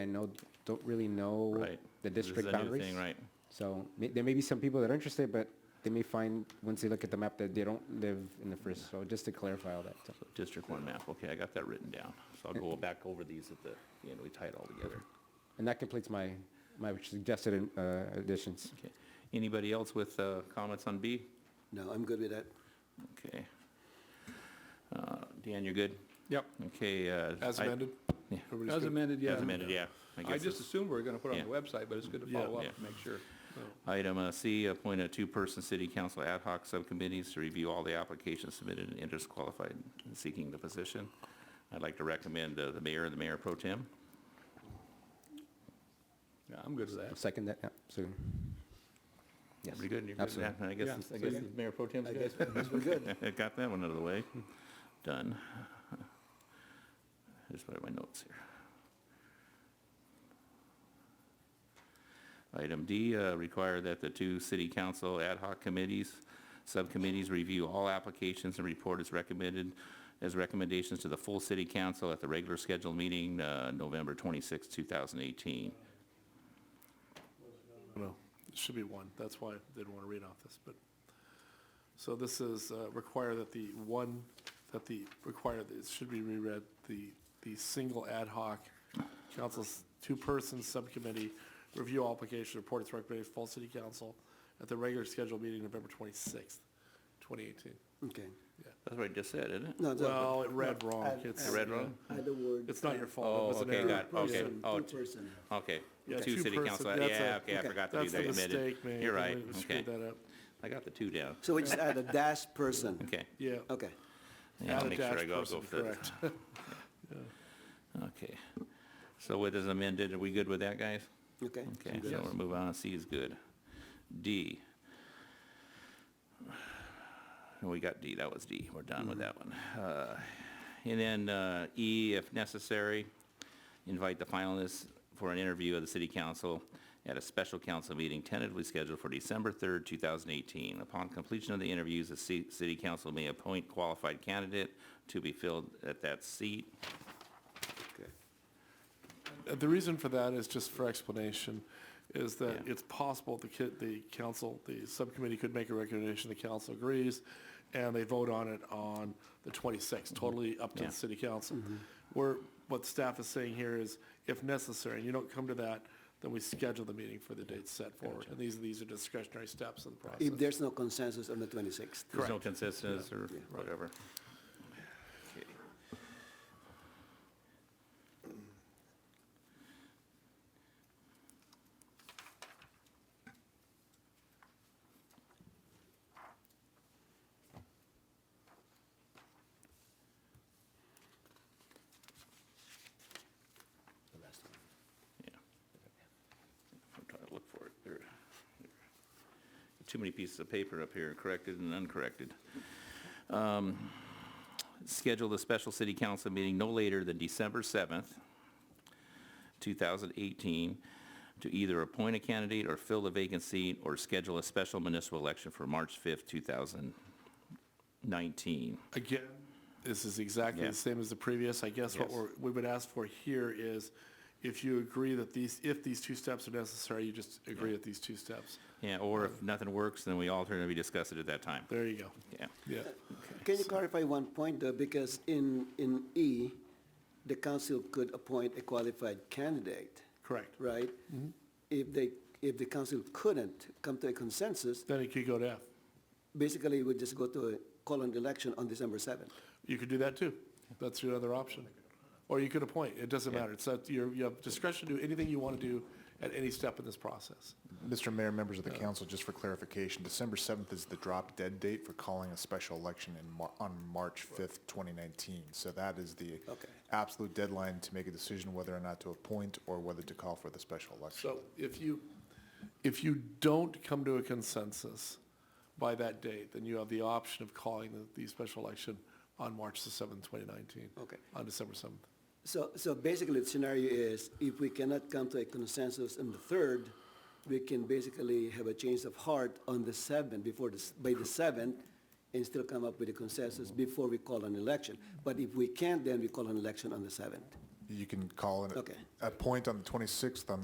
I know, don't really know Right. the This is district a new boundaries. thing, Right. So may- there may be some people that are interested, but they may find, once they look at the map, that they don't live in the first. So just to clarify all that. so. So District one map, okay, I got that written down. So I'll go back over these at the, end. we tie it all together. And that completes my, my suggested uh, additions. Okay. Anybody else with uh, comments on B? No, I'm good with that. Okay. Uh, Dan, you're good? Yep, Okay. uh, As I- amended? Yeah. Everybody's as good? amended, yeah. As amended, yeah. I I guess just it's- assumed we were going to put it on the Yeah. website, but it's good to Yeah. follow up Yeah. and make sure. Item uh, C, appoint a two-person city council ad hoc subcommittees to review all the applications submitted and interest qualified in seeking the position. I'd like to recommend uh, the mayor and the mayor pro tem. Yeah, I'm good with that. Second that, yeah, so. Yes. Pretty good, you're good with that? I guess, Yeah, I guess second. mayor pro tem's I good. guess we're good. Got that one out of the way. Done. Just put in my notes here. Item D, uh, require that the two city council ad hoc committees, subcommittees review all applications and report as recommended, as recommendations to the full city council at the regular scheduled meeting, uh, November 26, 2018. No, it should be one. That's why I didn't want to read off this, but. So this is uh, require that the one, that the, require, that it should be reread, the, the single ad hoc council's two-person subcommittee review application report its recommended full city council at the regular scheduled meeting November 26th, 2018. Okay. That's what I just said, isn't it? No, it's- Well, it read no, wrong. add- It's- add- It read wrong? Add the word. It's not your fault. Oh, It was an okay, error. got it. Okay. Person, Oh, two t- person. Okay, Yeah, two two city person, council, that's yeah, a- okay, I okay, forgot to do That's the that admitted. mistake, man. You're right, We okay. Screwed that up. I got the two down, So we just add a dash person. okay. Yeah. Okay. Yeah, Add I'll a make sure I dash go, go person, for correct. that. Okay. So with this amended, are we good with that, guys? Okay. Okay, so we'll move on, C is good. D. We got D, that was D, we're done with that one. Uh, And then uh, E, if necessary, invite the finalists for an interview of the city council at a special council meeting tentatively scheduled for December 3rd, 2018. Upon completion of the interviews, the ci- city council may appoint qualified candidate to be filled at that seat. Uh, The reason for that is just for explanation, is that Yeah. it's possible the ki the council, the subcommittee could make a recommendation, the council agrees, and they vote on it on the 26th, totally up to Mm-hmm. Yeah. the city council. Where, what staff is saying here is, if necessary, and you don't come to that, then we schedule the meeting for the date set forward. And these, these are discretionary steps in the process. If there's no consensus on the 26th. There's no consensus or whatever. Okay. Yeah. I'm trying to look for it. There- there. Too many pieces of paper up here, corrected and uncorrected. Um, Schedule the special city council meeting no later than December 7th, 2018, to either appoint a candidate or fill the vacant seat, or schedule a special municipal election for March 5th, 2019. Again, this is exactly Yeah. the same as the previous. I guess what Yes. we're, we would ask for here is if you agree that these, if these two steps are necessary, you just agree at these two steps. Yeah, or if nothing works, then we alter and we discuss it at that time. There you go. Yeah. Yeah. Can you clarify one point though, because in, in E, the council could appoint a qualified candidate, Correct. right? If they, if the council couldn't come to a consensus, Then it could go to F. basically it would just go to a call-in election on December 7th. You could do that too. That's your other option. Or you could appoint. It doesn't matter. It's that you're, you have discretion to do anything you want to do at any step in this process. Mr. Mayor, members of the council, just for clarification, December 7th is the drop dead date for calling a special election in, Mar- on March 5th, 2019. So that is the Okay. absolute deadline to make a decision whether or not to appoint or whether to call for the special election. So if you, if you don't come to a consensus by that date, then you have the option of calling the, the special election on March the 7th, 2019. Okay. On December 7th. So, so basically the scenario is if we cannot come to a consensus on the 3rd, we can basically have a change of heart on the 7th before the, s- by the 7th and still come up with a consensus before we call an election. But if we can't, then we call an election on the 7th. You can call it Okay. a point on the 26th, on